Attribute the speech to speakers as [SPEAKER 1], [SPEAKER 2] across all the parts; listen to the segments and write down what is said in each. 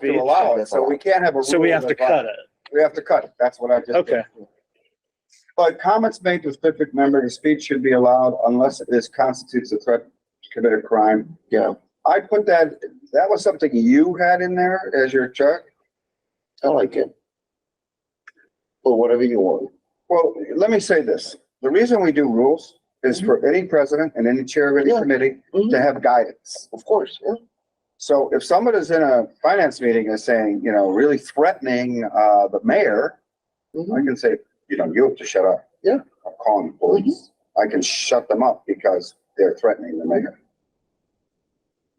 [SPEAKER 1] to allow it, so we can't have a.
[SPEAKER 2] So we
[SPEAKER 1] rule
[SPEAKER 2] have to
[SPEAKER 1] that-
[SPEAKER 2] cut it.
[SPEAKER 1] We have to cut it, that's what I just.
[SPEAKER 2] Okay.
[SPEAKER 1] But comments made to a specific member of the speech should be allowed unless it is constitutes a threat to commit a crime.
[SPEAKER 3] Yeah.
[SPEAKER 1] I put that, that was something you had in there as your check.
[SPEAKER 3] I like it. Or whatever you want.
[SPEAKER 1] Well, let me say this. The reason we do rules is for
[SPEAKER 2] Mm-hmm.
[SPEAKER 1] any president and any chair of any
[SPEAKER 3] Yeah.
[SPEAKER 1] committee to
[SPEAKER 3] Mhm.
[SPEAKER 1] have guidance.
[SPEAKER 3] Of course, yeah.
[SPEAKER 1] So if someone is in a finance meeting and saying, you know, really threatening, uh, the mayor, I
[SPEAKER 3] Mhm.
[SPEAKER 1] can say, you know, you have to shut up.
[SPEAKER 3] Yeah.
[SPEAKER 1] I'm calling the police. I can shut them up because they're threatening the mayor.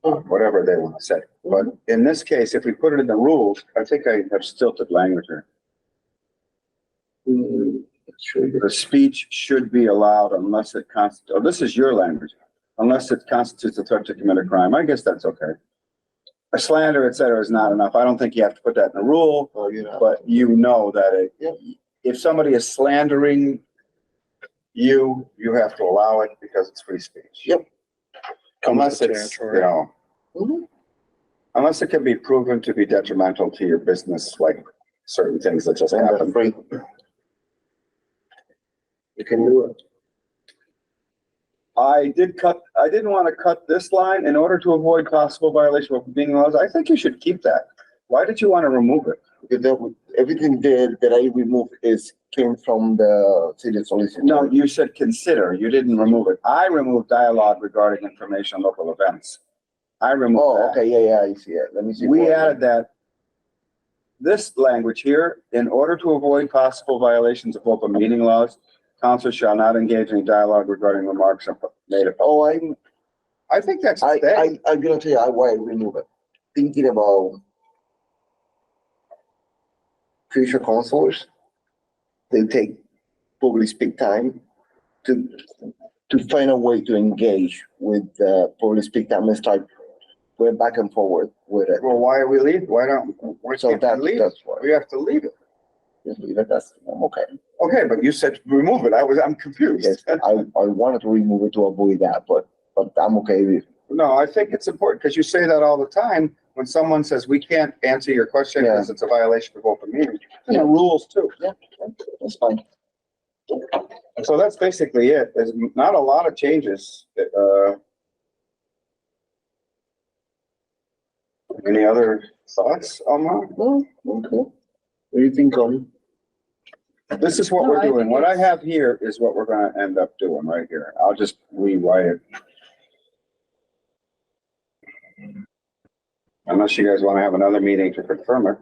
[SPEAKER 3] Mhm.
[SPEAKER 1] Whatever they want to say. But in this case, if we put it in the rules, I think I have stilted language here.
[SPEAKER 3] Mm, that's true.
[SPEAKER 1] The speech should be allowed unless it constitutes, oh, this is your language, unless it constitutes a threat to commit a crime. I guess that's okay. A slander, et cetera, is not enough. I don't think you have to put that in a rule,
[SPEAKER 3] Oh, you know.
[SPEAKER 1] but you know that
[SPEAKER 3] Yep.
[SPEAKER 1] it, if somebody is slandering you, you have to allow it because it's free speech.
[SPEAKER 3] Yep.
[SPEAKER 1] Unless
[SPEAKER 2] Comes with
[SPEAKER 1] it's, you
[SPEAKER 2] territory.
[SPEAKER 1] know,
[SPEAKER 3] Mhm.
[SPEAKER 1] unless it can be proven to be detrimental to your business, like certain things that just
[SPEAKER 3] And that's
[SPEAKER 1] happen.
[SPEAKER 3] free. You can do it.
[SPEAKER 1] I did cut, I didn't want to cut this line in order to avoid possible violation of being laws. I think you should keep that. Why did you want to remove it?
[SPEAKER 3] Because that would, everything there that I removed is came from the city solicitor.
[SPEAKER 1] No, you said consider, you didn't remove it. I removed dialogue regarding information on local events. I removed
[SPEAKER 3] Oh,
[SPEAKER 1] that.
[SPEAKER 3] okay, yeah, yeah, I see it. Let me see.
[SPEAKER 1] We
[SPEAKER 3] what-
[SPEAKER 1] added that this language here, in order to avoid possible violations of open meeting laws, council shall not engage in dialogue regarding remarks made. of-
[SPEAKER 3] Oh, I'm,
[SPEAKER 1] I think that's,
[SPEAKER 3] I,
[SPEAKER 1] that,
[SPEAKER 3] I, I'm gonna tell you why I remove it. Thinking about future counselors, they take probably speak time to, to find a way to engage with, uh, probably speak time and start going back and forward with it.
[SPEAKER 1] well, why are we leaving? Why don't, why
[SPEAKER 3] So
[SPEAKER 1] can't
[SPEAKER 3] that's,
[SPEAKER 1] we leave? it?
[SPEAKER 3] that's why.
[SPEAKER 1] We have to leave it.
[SPEAKER 3] Just leave it, that's, I'm okay.
[SPEAKER 1] Okay, but you said remove it. I was, I'm
[SPEAKER 3] Yes,
[SPEAKER 1] confused.
[SPEAKER 3] I, I wanted to remove it to avoid that, but, but I'm okay with,
[SPEAKER 1] No, I think it's important because you say that all the time when someone says, we can't answer your question because it's a violation of open meeting. And the rules too.
[SPEAKER 3] that's fine.
[SPEAKER 1] So that's basically it. There's not a lot of changes. Uh, any other thoughts, Alma?
[SPEAKER 3] No, okay. What do you think, Colin?
[SPEAKER 1] This is what
[SPEAKER 4] No,
[SPEAKER 1] we're
[SPEAKER 4] I think
[SPEAKER 1] doing. What I
[SPEAKER 4] it's-
[SPEAKER 1] have here is what we're gonna end up doing right here. I'll just rewrite it. Unless you guys wanna have another meeting to confirm it.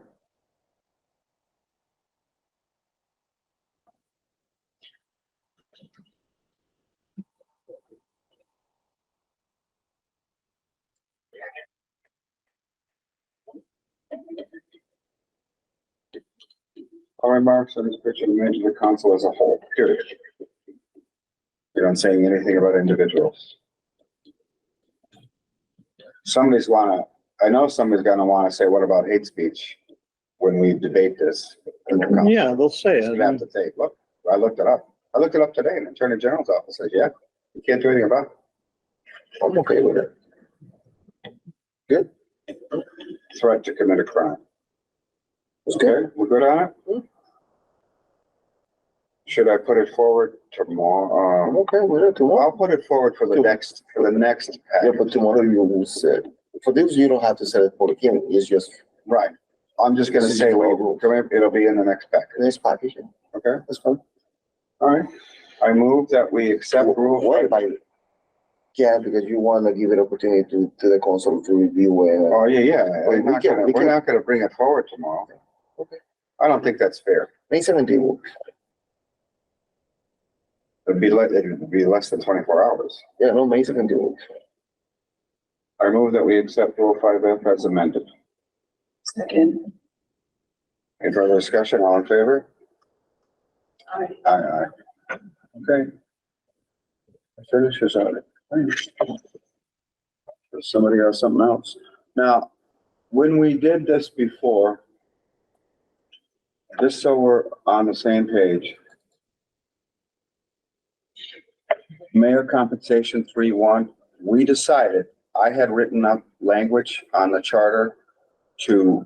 [SPEAKER 1] All remarks on this picture made to the council as a whole, period. You're not saying anything about individuals. Somebody's wanna, I know somebody's gonna wanna say, what about hate speech? When we debate this. in the council.
[SPEAKER 2] Yeah, they'll say
[SPEAKER 1] You're gonna have
[SPEAKER 2] it.
[SPEAKER 1] to say, look, I looked it up. I looked it up today in the Attorney General's office, says, yeah, you can't do anything about it.
[SPEAKER 3] I'm okay with it.
[SPEAKER 1] Threat to commit a crime.
[SPEAKER 3] It's good.
[SPEAKER 1] Okay, we're good on it?
[SPEAKER 3] Mm.
[SPEAKER 1] Should I put it forward tomorrow?
[SPEAKER 3] I'm okay with it
[SPEAKER 1] Well,
[SPEAKER 3] tomorrow.
[SPEAKER 1] I'll put it forward for the next, for the next
[SPEAKER 3] Yeah,
[SPEAKER 1] package.
[SPEAKER 3] but tomorrow you will say, for this, you don't have to set it for the hearing, it's just
[SPEAKER 1] Right. I'm just gonna say, wait, come in, it'll be in the next package,
[SPEAKER 3] this package,
[SPEAKER 1] okay?
[SPEAKER 3] that's fine.
[SPEAKER 1] All right. I move that we accept rule
[SPEAKER 3] What about it? Yeah, because you wanna give it opportunity to, to the council to review and, uh,
[SPEAKER 1] Oh, yeah, yeah. We're
[SPEAKER 3] Wait, we
[SPEAKER 1] not
[SPEAKER 3] can-
[SPEAKER 1] gonna,
[SPEAKER 3] we
[SPEAKER 1] we're
[SPEAKER 3] can-
[SPEAKER 1] not gonna bring it forward tomorrow.
[SPEAKER 3] Okay.
[SPEAKER 1] I don't think that's fair.
[SPEAKER 3] May seventeen works,
[SPEAKER 1] It'd be less, it'd be less than twenty-four hours.
[SPEAKER 3] yeah, no, May seventeen works.
[SPEAKER 1] I move that we accept rule five F as amended.
[SPEAKER 4] Second.
[SPEAKER 1] Any further discussion? All in favor?
[SPEAKER 4] Aye.
[SPEAKER 1] Aye, aye. Okay. Finish this out. Does Somebody has something else. Now, when we did this before, just so we're on the same page. Mayor compensation three one, we decided, I had written up language on the charter to